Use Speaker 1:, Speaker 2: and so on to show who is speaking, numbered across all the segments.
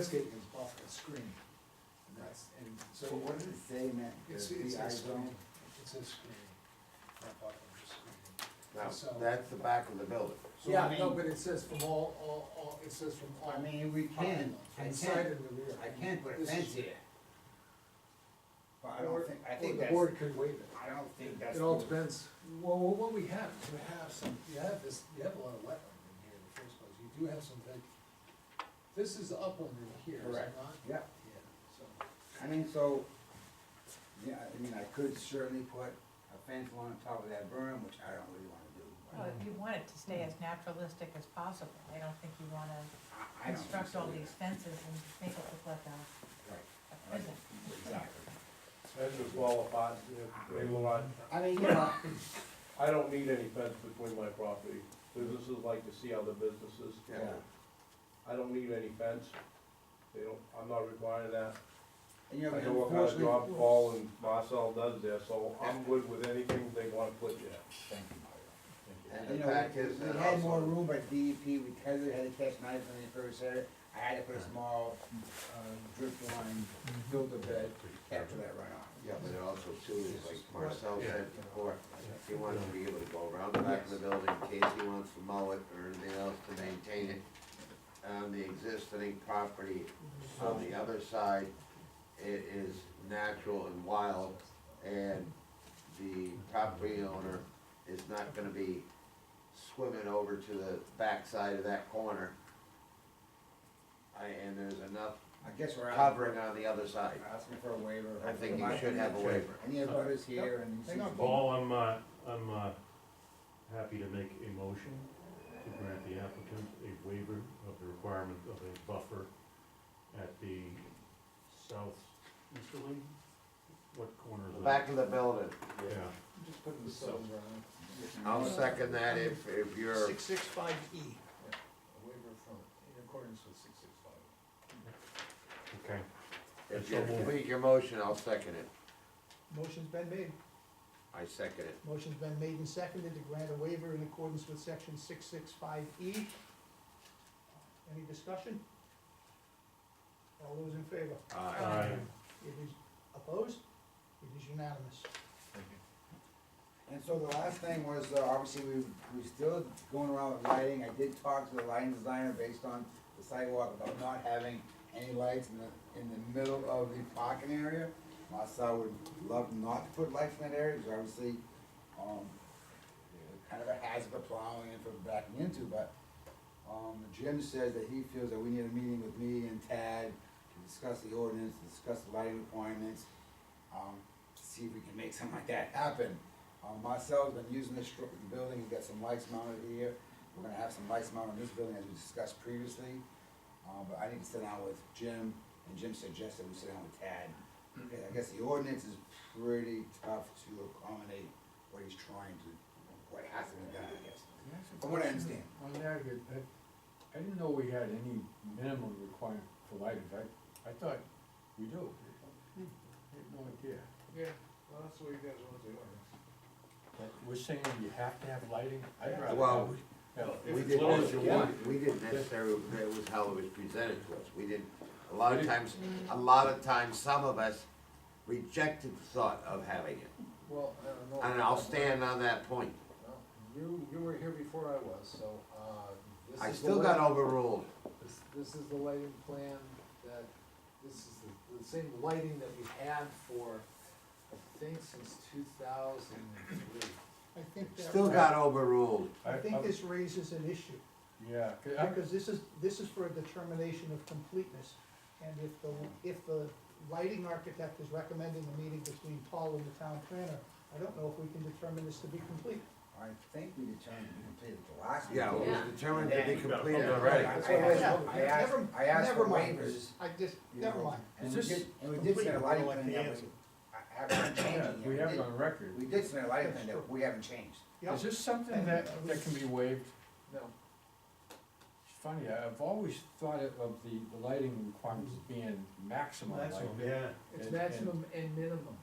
Speaker 1: landscape is off the screen, and that's, and so
Speaker 2: So what
Speaker 1: what
Speaker 2: did
Speaker 1: is,
Speaker 2: they meant,
Speaker 1: it's,
Speaker 2: the
Speaker 1: it's
Speaker 2: VI
Speaker 1: a screen,
Speaker 2: zone?
Speaker 1: it's a screen, not bottom of the screen.
Speaker 3: Now,
Speaker 1: So-
Speaker 3: that's the back of the building.
Speaker 2: So I
Speaker 1: Yeah, no,
Speaker 2: mean-
Speaker 1: but it says from all, all, all, it says from all.
Speaker 2: I mean, we can, I
Speaker 1: From the side
Speaker 2: can't,
Speaker 1: and the rear.
Speaker 2: I can't put a
Speaker 1: This is-
Speaker 2: fence here. But I don't think, I
Speaker 1: or
Speaker 2: think that's,
Speaker 1: the board could waive it.
Speaker 2: I don't think that's.
Speaker 1: It all
Speaker 2: the-
Speaker 1: depends, well, well, what we have, you have some, you have this, you have a lot of wetland in here in the first place, you do have some big, this is upland in here, is it
Speaker 2: Correct.
Speaker 1: not?
Speaker 2: Yeah,
Speaker 1: Yeah, so,
Speaker 2: I mean, so, yeah, I mean, I could certainly put a fence on top of that berm, which I don't really wanna do.
Speaker 4: Well, if you want it to stay as naturalistic as possible, I don't think you
Speaker 2: I-
Speaker 4: wanna
Speaker 2: I don't think
Speaker 4: construct
Speaker 2: so
Speaker 4: all
Speaker 2: either.
Speaker 4: these fences and make it look like a,
Speaker 2: Right,
Speaker 4: a
Speaker 2: right,
Speaker 4: prison.
Speaker 2: Exactly.
Speaker 5: That just fall apart, they will not,
Speaker 2: I mean, you know,
Speaker 5: I don't need any fence between my property, businesses like to see other businesses.
Speaker 2: Yeah.
Speaker 5: I don't need any fence, they don't, I'm not requiring that.
Speaker 2: and you know,
Speaker 5: I know what kind of job
Speaker 2: unfortunately,
Speaker 5: Paul and Marcel does there, so I'm good with anything they wanna put there.
Speaker 3: And
Speaker 2: you
Speaker 3: the
Speaker 2: know,
Speaker 3: back
Speaker 2: we-
Speaker 3: is,
Speaker 2: we
Speaker 3: and
Speaker 2: had more
Speaker 3: also,
Speaker 2: room at DEP, we had, we had to catch knives when they first had it. I had to put a small, uh, drip line, build a bed, to capture that runoff.
Speaker 3: yeah, but it also too is like Marcel said before, if he wants to be able to go around the back of the building in case he wants to mow it or anything else to maintain it. On the existing property on the other side, it is natural and wild and the property owner is not gonna be swimming over to the backside of that corner. I, and there's enough
Speaker 2: I guess we're out.
Speaker 3: covering on the other side.
Speaker 2: Asking for a waiver.
Speaker 3: I think you should have a waiver.
Speaker 2: Any of us here and.
Speaker 1: Hang on,
Speaker 6: Paul, I'm, uh, I'm, uh, happy to make a motion to grant the applicant a waiver of the requirement of a buffer at the south, Mr. Lee? What corner is
Speaker 3: The
Speaker 6: that?
Speaker 3: Back of the building.
Speaker 6: Yeah,
Speaker 1: just putting the
Speaker 6: So-
Speaker 1: cells around.
Speaker 3: I'll second that if, if you're,
Speaker 7: Six, six, five E.
Speaker 1: A waiver from, in accordance with six six five. E.
Speaker 6: okay.
Speaker 3: if you complete your motion, I'll second it.
Speaker 7: Motion's been made.
Speaker 3: I second it.
Speaker 7: Motion's been made and seconded to grant a waiver in accordance with section six, six, five E. Any discussion? All those in favor?
Speaker 3: Aye.
Speaker 6: Aye.
Speaker 7: It is opposed? It is unanimous.
Speaker 2: And so the last thing was, uh, obviously, we, we still going around with lighting, I did talk to the lighting designer based on the sidewalk about not having any lights in the, in the middle of the parking area. Myself would love not to put lights in that area, because obviously, um, they're kind of a hazard for plowing and for backing into, but, um, Jim says that he feels that we need a meeting with me and Tad to discuss the ordinance, discuss the lighting requirements, um, to see if we can make something like that happen. Um, myself, been using this stru- building, we've got some lights mounted here, we're gonna have some lights mounted in this building as we discussed previously. Um, but I need to sit down with Jim, and Jim suggested we sit down with Tad. Okay, I guess the ordinance is pretty tough to accommodate what he's trying to, what has to be done, I guess, from what I understand.
Speaker 8: On that, I, I- I didn't know we had any minimum requirement for lighting, I, I thought we do. I had no idea.
Speaker 1: Yeah, well, that's what you guys want to do.
Speaker 8: But We're saying you have to have lighting? I'd rather
Speaker 3: Well,
Speaker 8: have- have-
Speaker 3: we
Speaker 8: as low as you want.
Speaker 3: didn't, we didn't necessarily, that was how it was presented to us. We didn't, a lot of times, a lot of times, some of us rejected the thought of having it.
Speaker 1: Well, I don't know.
Speaker 3: And I'll stand on that point.
Speaker 1: Well, You, you were here before I was, so, uh, this is.
Speaker 3: I
Speaker 1: the
Speaker 3: still got
Speaker 1: lighting-
Speaker 3: overruled.
Speaker 1: This, this is the lighting plan that, this is the, the same lighting that we had for, I think since two thousand and three.
Speaker 7: I think that.
Speaker 3: Still got overruled.
Speaker 7: I think
Speaker 8: I'm-
Speaker 7: this raises an issue,
Speaker 8: Yeah, 'cause I-
Speaker 7: because this is, this is for a determination of completeness. And if the, if the lighting architect is recommending a meeting between Paul and the town planner, I don't know if we can determine this to be complete.
Speaker 2: I think we determined to complete it the last.
Speaker 3: Yeah, it
Speaker 2: meeting.
Speaker 3: was determined to be completed
Speaker 2: I
Speaker 3: already.
Speaker 2: asked, I asked,
Speaker 7: Never-
Speaker 2: I asked for
Speaker 7: never mind.
Speaker 2: waivers.
Speaker 7: I just,
Speaker 2: you
Speaker 7: never
Speaker 2: know,
Speaker 7: mind.
Speaker 2: And we
Speaker 8: Is
Speaker 2: did,
Speaker 8: this
Speaker 2: and we did
Speaker 7: complete?
Speaker 2: send a
Speaker 7: I
Speaker 2: lighting
Speaker 7: don't like
Speaker 2: plan
Speaker 7: the
Speaker 2: that
Speaker 7: answer.
Speaker 2: we, I haven't
Speaker 8: yeah,
Speaker 2: changed it
Speaker 8: we
Speaker 2: yet.
Speaker 8: have
Speaker 2: We
Speaker 8: it
Speaker 2: did-
Speaker 8: on record.
Speaker 2: We did send a lighting plan that we haven't changed.
Speaker 7: Yeah.
Speaker 8: Is this something that, that can be waived?
Speaker 1: No,
Speaker 8: It's funny, I- I've always thought of of the, the lighting requirements as being maximum
Speaker 1: Maximum,
Speaker 8: lighting.
Speaker 6: Yeah.
Speaker 1: it's
Speaker 8: And- and-
Speaker 1: maximum and minimum.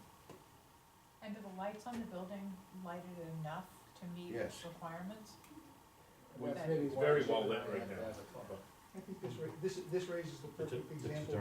Speaker 4: And do the lights on the building lighted enough to meet
Speaker 3: Yes.
Speaker 4: requirements?
Speaker 1: That's
Speaker 4: Well,
Speaker 1: maybe
Speaker 4: it's
Speaker 1: why
Speaker 6: very
Speaker 1: I should
Speaker 6: well
Speaker 1: have
Speaker 6: lit
Speaker 1: had
Speaker 6: right now.
Speaker 1: that as a thought.
Speaker 7: I think this ra- this, this raises the
Speaker 6: It's a-
Speaker 7: perfect
Speaker 6: it's a
Speaker 7: example